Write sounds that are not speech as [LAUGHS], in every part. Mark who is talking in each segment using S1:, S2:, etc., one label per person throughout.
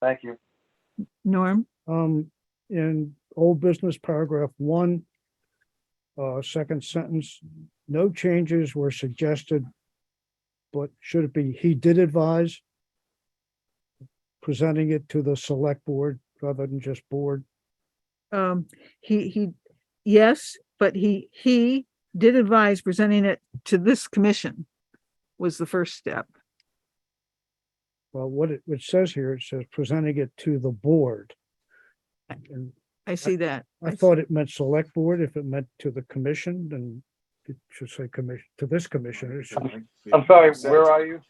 S1: Thank you.
S2: Norm,
S3: Um, in old business paragraph one, uh, second sentence, no changes were suggested. But should it be, he did advise? Presenting it to the select board rather than just board.
S2: um, he, he, yes, but he, he did advise presenting it to this commission was the first step.
S3: Well, what it, it says here, it says presenting it to the board. And
S2: I see that.
S3: I
S2: s-
S3: thought it meant select board. If it meant to the commission, then it should say commission, to this commissioner. it
S4: Um,
S3: should-
S1: I'm sorry, where are you?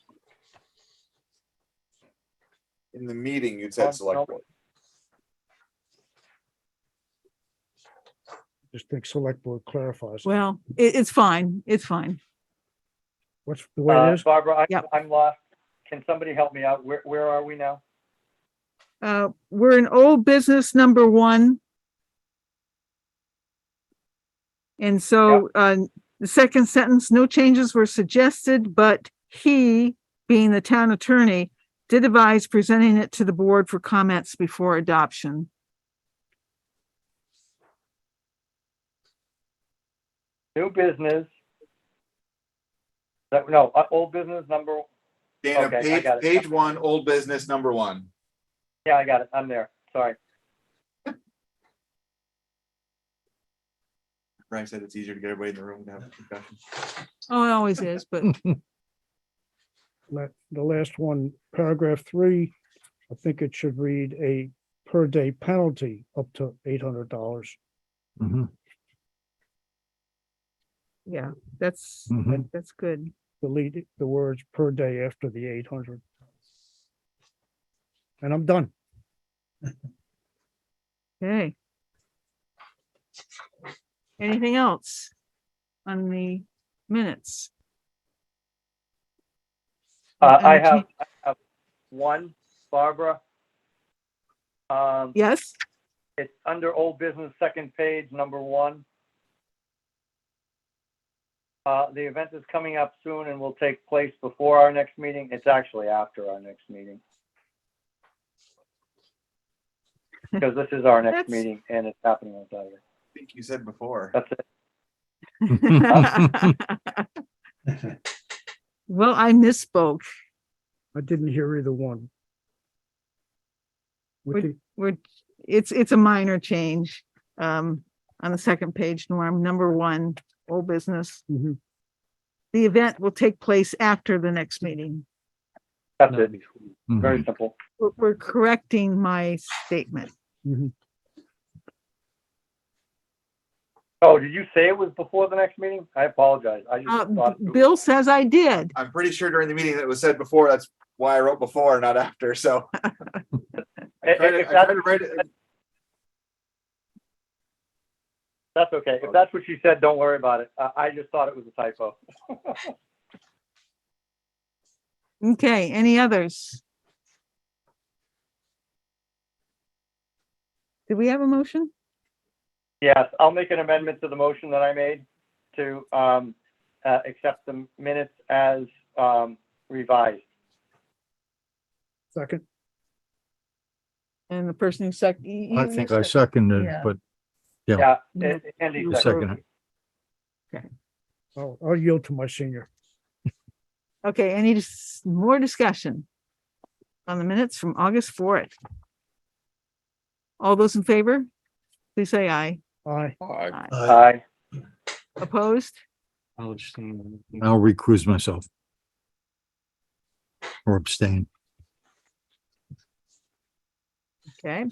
S4: In the meeting, you
S1: Oh,
S4: said select board.
S3: Just think select board clarifies. it.
S2: Well, it, it's fine. It's fine.
S3: What's the way it
S1: Uh,
S3: is?
S1: Barbara, I,
S2: Yep.
S1: I'm lost. Can somebody help me out? Where, where are we now?
S2: Uh, we're in old business number one. And so, uh, the second sentence, no changes were suggested, but he, being the town attorney, did advise presenting it to the board for comments before adoption.
S1: New business. That, no, uh, old business number,
S4: Dana,
S1: Okay, I
S4: page,
S1: got it.
S4: page one, old business, number one.
S1: yeah, I got it. I'm there. Sorry.
S4: Brian said it's easier to get everybody in the room to have a discussion.
S2: Oh, it always is, but
S3: la- the last one, paragraph three, I think it should read a per day penalty up to eight hundred dollars.
S2: yeah, that's,
S3: Mhm.
S2: that's good.
S3: Delete the words per day after the eight hundred. And I'm done.
S2: Okay. Anything else on the minutes?
S1: Uh, I
S2: Um,
S1: have, I have one, Barbara. Um, [LAUGHS]
S2: Yes? [LAUGHS]
S1: it's under old business, second page, number one. Uh, the event is coming up soon and will take place before our next meeting. It's actually after our next meeting. Because this is our next
S2: That's-
S1: meeting and it's happening on Saturday.
S4: I think you said before.
S1: That's it.
S2: Well, I misspoke.
S3: I didn't hear either one. With
S2: Would-
S3: the,
S2: We're, it's, it's a minor change. Um, on the second page, Norm, number one, old business.
S3: Mhm.
S2: The event will take place after the next meeting.
S1: That's it. Very simple.
S2: We're, we're correcting my statement.
S3: mm-hmm,
S1: Oh, did you say it was before the next meeting? I apologize. I
S2: Uh,
S1: just thought. it was-
S2: Bill says I did.
S4: I'm pretty sure during the meeting that it was said before, that's why I wrote before, not after, so. I
S1: If-
S4: tried to-
S1: if
S4: I tried
S1: that's-
S4: to write it-
S1: That's okay. If that's what she said, don't worry about it. Uh, I, I just thought it was a typo.
S2: Okay, any others? Do we have a motion?
S1: Yes, I'll make an amendment to the motion that I made to, um, uh, accept the minutes as, um, revised.
S3: second,
S2: And the person who sec. you-
S5: I
S2: you
S5: think I
S2: sec-
S5: seconded,
S2: Yeah.
S5: but
S1: Yeah,
S2: Yeah.
S1: Andy
S2: You
S1: seconded.
S5: second.
S3: I'll, I'll yield to my senior.
S2: Okay, any dis- more discussion on the minutes from August fourth? All those in favor, please say aye.
S3: I,
S2: Aye.
S1: Aye.
S2: Opposed?
S5: I'll recuse myself. Or abstain.
S2: Okay.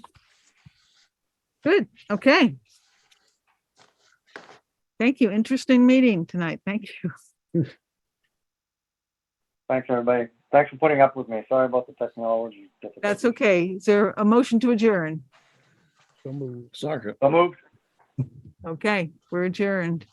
S2: Good, okay. Thank you. Interesting meeting tonight. Thank you.
S1: Thanks, everybody. Thanks for putting up with me. Sorry about the technology.
S2: That's
S1: difficulties.
S2: okay. Is there a motion to adjourn?
S3: so moved.
S1: So moved.
S2: Okay, we're adjourned.